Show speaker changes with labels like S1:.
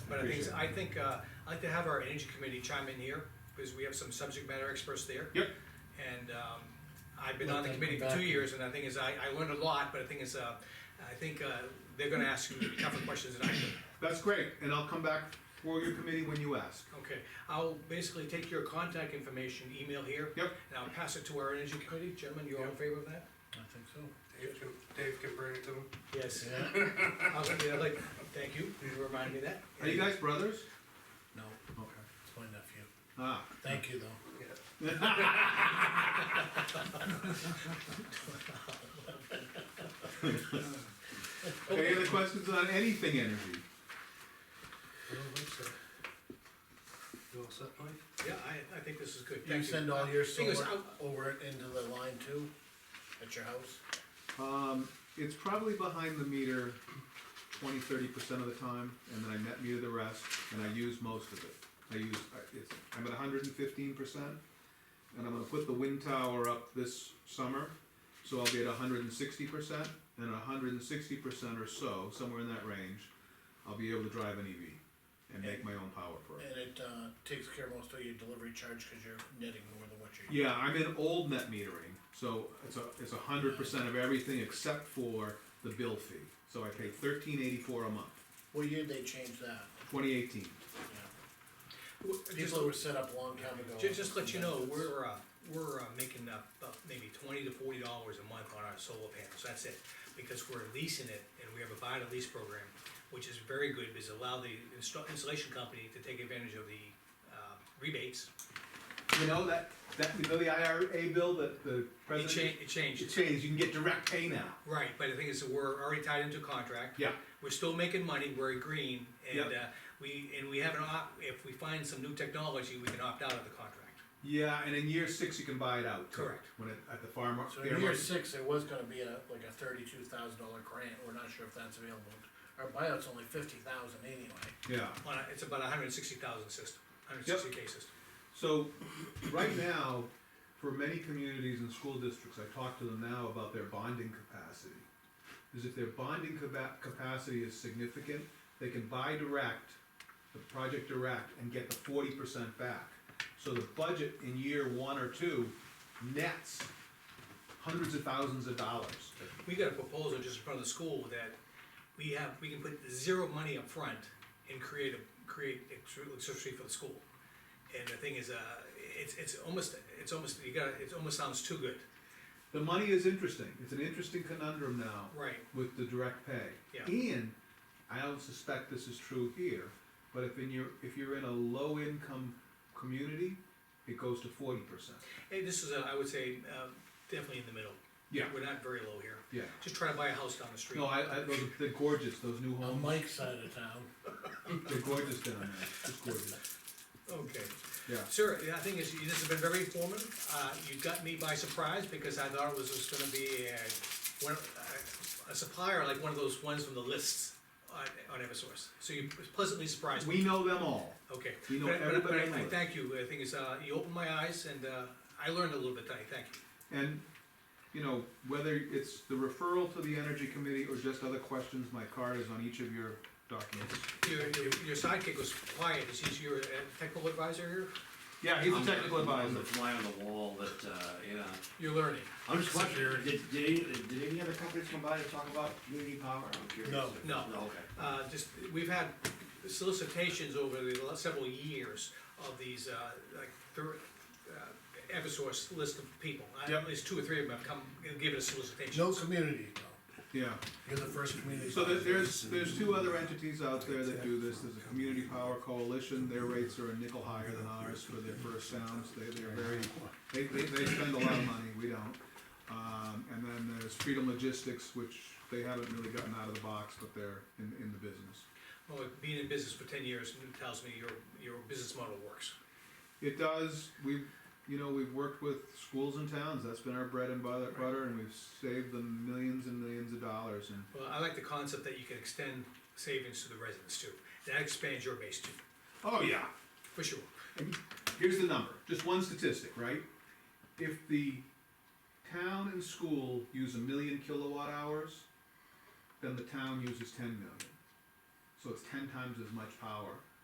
S1: of things,
S2: Appreciate
S1: I think, uh, I'd like to have our energy committee chime in here, because we have some subject matter experts there.
S2: Yep.
S1: And, um, I've been
S3: Let
S1: on the
S3: them
S1: committee
S3: come
S1: for two
S3: back.
S1: years, and the thing is, I, I learned a lot, but the thing is, uh, I think, uh, they're gonna ask you tougher questions than I did.
S2: That's great, and I'll come back for your committee when you ask.
S1: Okay, I'll basically take your contact information, email here.
S2: Yep.
S1: And I'll pass it to our energy committee, gentlemen, you all in favor of that?
S3: I think so.
S4: Dave can, Dave can bring it to them.
S1: Yes.
S3: Yeah,
S1: I'll, yeah, like, thank you, you remind me of that.
S2: Are you guys brothers?
S3: no,
S2: Okay.
S3: it's my nephew.
S2: Ah,
S3: Thank you though.
S2: any other questions on anything energy?
S4: I don't think so. You all set, Mike?
S1: Yeah, I, I think this is good,
S3: You
S1: thank you.
S3: send all your
S1: Thing is,
S3: solar
S1: I'll-
S3: over it into the line too, at your house?
S2: Um, it's probably behind the meter 20, 30 percent of the time, and then I net meter the rest, and I use most of it. I use, I- it's, I'm at hundred and fifteen percent, and I'm gonna put the wind tower up this summer, so I'll be at hundred and sixty percent, and hundred and sixty percent or so, somewhere in that range, I'll be able to drive an EV and make my own power for it.
S3: And it, uh, takes care of most of your delivery charge, cause you're netting more than what you're.
S2: Yeah, I'm in old net metering, so it's a, it's a hundred percent of everything except for the bill fee. So I pay thirteen eighty-four a month,
S3: What year they changed that?
S2: twenty eighteen.
S3: Yeah.
S1: W- Uh, just-
S3: People that were set up a long time ago.
S1: Ju- Just let you know, we're, uh, we're uh, making up about maybe twenty to forty dollars a month on our solar panels, that's it. Because we're leasing it, and we have a buy to lease program, which is very good, because allow the install, installation company to take advantage of the, uh, rebates.
S2: You know, that, that, you know the IRA bill that the
S1: It
S2: president.
S1: changed, it changed,
S2: It changed, you can get direct pay now.
S1: right, but the thing is, that we're already tied into a contract.
S2: Yeah.
S1: We're still making money, we're green, and, uh,
S2: Yeah.
S1: we, and we have an op, if we find some new technology, we can opt out of the contract.
S2: Yeah, and in year six, you can buy it out. too,
S1: Correct.
S2: When it, at the farm, mar-
S3: So
S2: fair
S3: in year
S2: market.
S3: six, there was gonna be a, like a thirty-two thousand dollar grant, we're not sure if that's available. Our buyout's only fifty thousand anyway.
S2: Yeah,
S1: On a, it's about a hundred and sixty thousand system, hundred and sixty K system.
S2: so, right now, for many communities and school districts, I talk to them now about their bonding capacity. Is if their bonding capa- capacity is significant, they can buy direct, the project direct, and get the forty percent back. So the budget in year one or two nets hundreds of thousands of dollars.
S1: We got a proposal just in front of the school that we have, we can put zero money up front and create a, create electricity for the school. And the thing is, uh, it's, it's almost, it's almost, you gotta, it almost sounds too good.
S2: The money is interesting, it's an interesting conundrum now.
S1: Right.
S2: With the direct pay.
S1: Yeah.
S2: And I don't suspect this is true here, but if in your, if you're in a low income community, it goes to forty percent.
S1: Hey, this is, uh, I would say, uh, definitely in the middle.
S2: Yeah.
S1: We're not very low here.
S2: Yeah.
S1: Just try to buy a house down the street.
S2: No, I, I, those, they're gorgeous, those new
S3: On
S2: homes,
S3: Mike's side of town,
S2: they're gorgeous down there, it's gorgeous,
S1: Okay.
S2: yeah.
S1: Sir, the thing is, this has been very informative. Uh, you got me by surprise because I thought it was just gonna be a, one, a supplier, like one of those ones from the lists on, on Eversource. So you pleasantly surprised me.
S2: We know them all.
S1: Okay.
S2: we know
S1: But I- but I- but I-
S2: everybody on
S1: I
S2: the
S1: thank you. The thing is, uh, you opened my eyes and, uh, I learned a little bit tonight. Thank you.
S2: And, you know, whether it's the referral to the energy committee or just other questions, my card is on each of your documents.
S1: Your, your your sidekick was quiet. Is he your uh, technical advisor here?
S2: Yeah, he's
S5: I'm
S2: a technical
S5: the- I'm
S2: advisor.
S5: the fly on the wall that, uh, yeah.
S1: You're learning.
S5: I'm just wondering, did, did any, did any other companies come by to talk about community power? I'm curious.
S3: No.
S1: No.
S5: Okay.
S1: Uh, just, we've had solicitations over the last several years of these, uh, like, thir- uh, Eversource list of people. I-
S2: Yep.
S1: At least two or three of them have come and given us solicitations.
S3: no community though,
S2: Yeah.
S3: you're the first community.
S2: So there- there's, there's two other entities out there that do this, there's a Community Power Coalition, their rates are a nickel higher than ours for their first sounds, they, they're very, they, they, they spend a lot of money, we don't. Um, and then there's Freedom Logistics, which they haven't really gotten out of the box, but they're in, in the business.
S1: Well, being in business for ten years tells me your, your business model works.
S2: It does, we've, you know, we've worked with schools and towns, that's been our bread and butter, butter, and we've saved them millions and millions of dollars, and
S1: Well, I like the concept that you can extend savings to the residents too. That expands your base too,
S2: Oh, yeah.
S1: for sure.
S2: And Here's the number, just one statistic, right? If the town and school use a million kilowatt hours, then the town uses ten million. so it's ten times as much power.